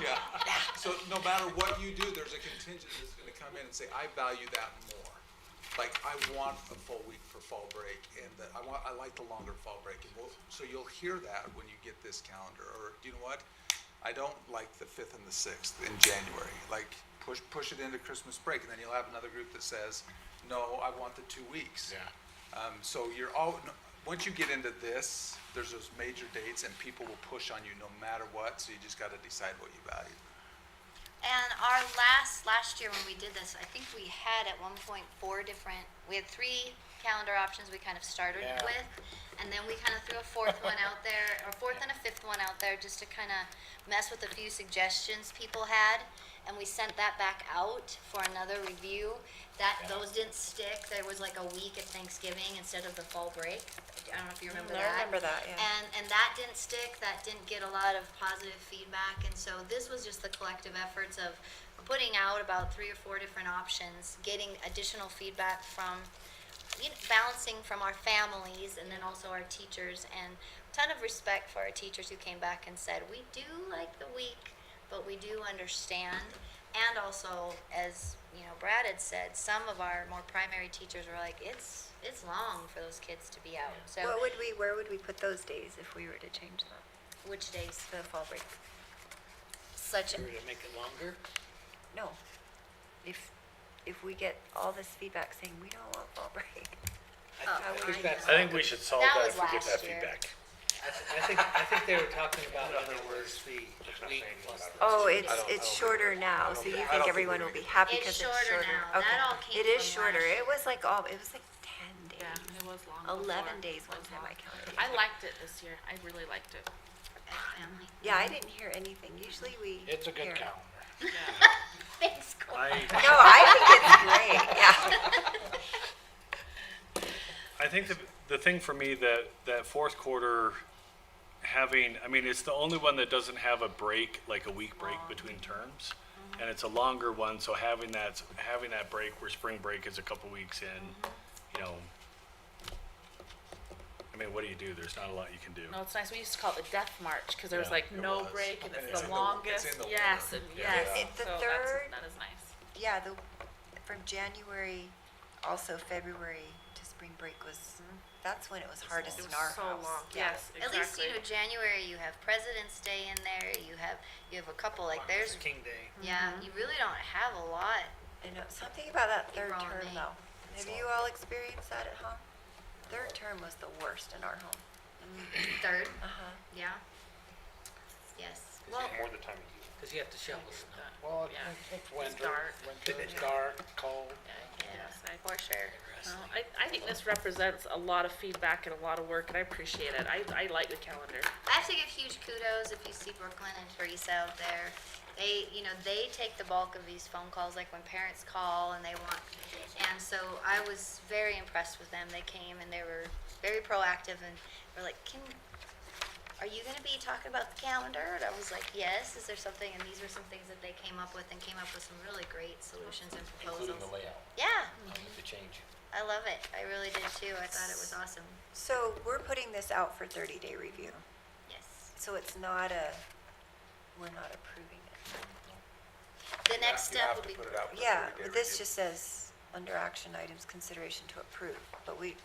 Yeah, so no matter what you do, there's a contingent that's gonna come in and say, I value that more. Like, I want a full week for fall break, and that, I want, I like the longer fall break, and we'll, so you'll hear that when you get this calendar, or, you know what? I don't like the fifth and the sixth in January, like, push, push it into Christmas break, and then you'll have another group that says, no, I want the two weeks. Yeah. Um, so you're all, no- once you get into this, there's those major dates, and people will push on you no matter what, so you just gotta decide what you value. And our last, last year when we did this, I think we had at one point four different, we had three calendar options we kind of started Yeah. with. And then we kind of threw a fourth one out there, or fourth and a fifth one out there, just to kind of mess with a few suggestions people had. And we sent that back out for another review. That, Yeah. those didn't stick. There was like a week at Thanksgiving instead of the fall break. I don't know if you remember I that. remember that, yeah. And, and that didn't stick, that didn't get a lot of positive feedback, and so this was just the collective efforts of putting out about three or four different options, getting additional feedback from, you know, balancing from our families and then also our teachers, and ton of respect for our teachers who came back and said, we do like the week, but we do understand. And also, as, you know, Brad had said, some of our more primary teachers were like, it's, it's long for those kids to be out, so. What would we, where would we put those days if we were to change that, Which days? the fall break? Such, If we were to make it longer, No. If, if we get all this feedback saying we don't want fall break. Uh, I Oh, I thi- I think that's, know. I think we should solve That that was if we get last that year. feedback. I thi- I think, I think they were talking about in other words, the week plus. Oh, it's, don't- I it's don't shorter now, so you think everyone will be happy It's because it's shorter? shorter now. That Okay. all came It is from shorter. last It was like all, it was like ten Yeah, days, it was long. eleven before. days It one was time I long. counted. I liked it this year. I really liked it. family. Yeah, I didn't hear anything. Usually we. It's a good hear. calendar. Thanks, Cole. I, No, I think it's great, yeah. I think the, the thing for me that, that fourth quarter having, I mean, it's the only one that doesn't have a break, like a week break Oh. between terms. And it's a longer one, so having that, having that break where spring break is a couple weeks in, Mm-hmm. you know. I mean, what do you do? There's not a lot you can do. No, it's nice. We used to call it the Death March because there was Yeah, like it no was. break and And it's it's in the the wa- it's in longest. the yes, winter. and Yeah. yes. It's the so that's- third- That is nice. Yeah, the, from January, also February to spring break was, that's when it was hardest Mm-hmm. It in our was so house. long. Yeah. Yes, At exactly. least, you know, January, you have President's Day in there, you have, you have a couple, like, there's, King Day. yeah, you really don't have a lot. I know, uh, something about that third April and term May. though. Have you all experienced that at home? Third term was the worst in our home. Third, Uh-huh. yeah. Yes, well, Because you have to shovel snow. Well, Yeah. it's It's winter, dark. winter, it's dark, cold. Yes, yeah, I- for sure. No, I, I think this represents a lot of feedback and a lot of work, and I appreciate it. I, I like the calendar. I have to give huge kudos if you see Brooklyn and Teresa out there. They, you know, they take the bulk of these phone calls, like when parents call and they want. And so I was very impressed with them. They came and they were very proactive and were like, "Can, are you going to be talking about the calendar?" And I was like, "Yes." Is there something? And these were some things that they came up with and came up with some really great solutions and proposals. Including the layout, Yeah, the change. I love it. I really did too. I thought it was awesome. So we're putting this out for thirty day review, Yes. so it's not a, we're not approving it. The next You have- step will be. You have to put it out for Yeah, thirty-day but this review. just says, under action items, consideration to approve, but we,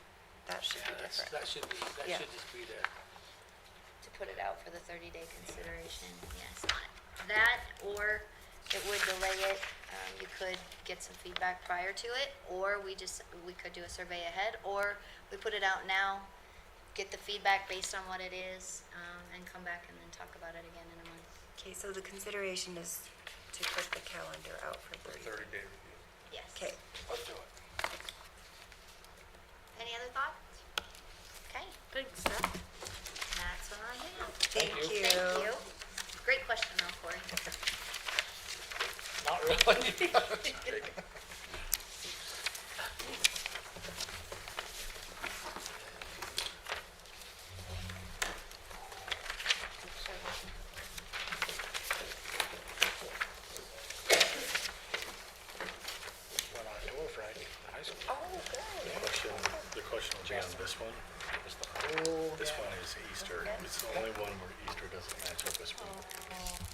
that should Yeah, be that's, different. that should be, that Yeah. should just be there. to put it out for the thirty day consideration, yes. That, or it would delay it, um, you could get some feedback prior to it, or we just, we could do a survey ahead, or we put it out now, get the feedback based on what it is, um, and come back and then talk about it again in a month. Okay, so the consideration is to put the calendar out for thirty. Thirty-day review. Yes. Okay, Let's do it. Any other thoughts? Okay, Big step. that's what I have. thank you. Thank you. Great question though, Corey. Not really. Went on tour Friday, the high school. Oh, good. Question- The question will be on this one. It's the whole, Oh, This one is Easter. It's the only one where Easter doesn't match up with spring.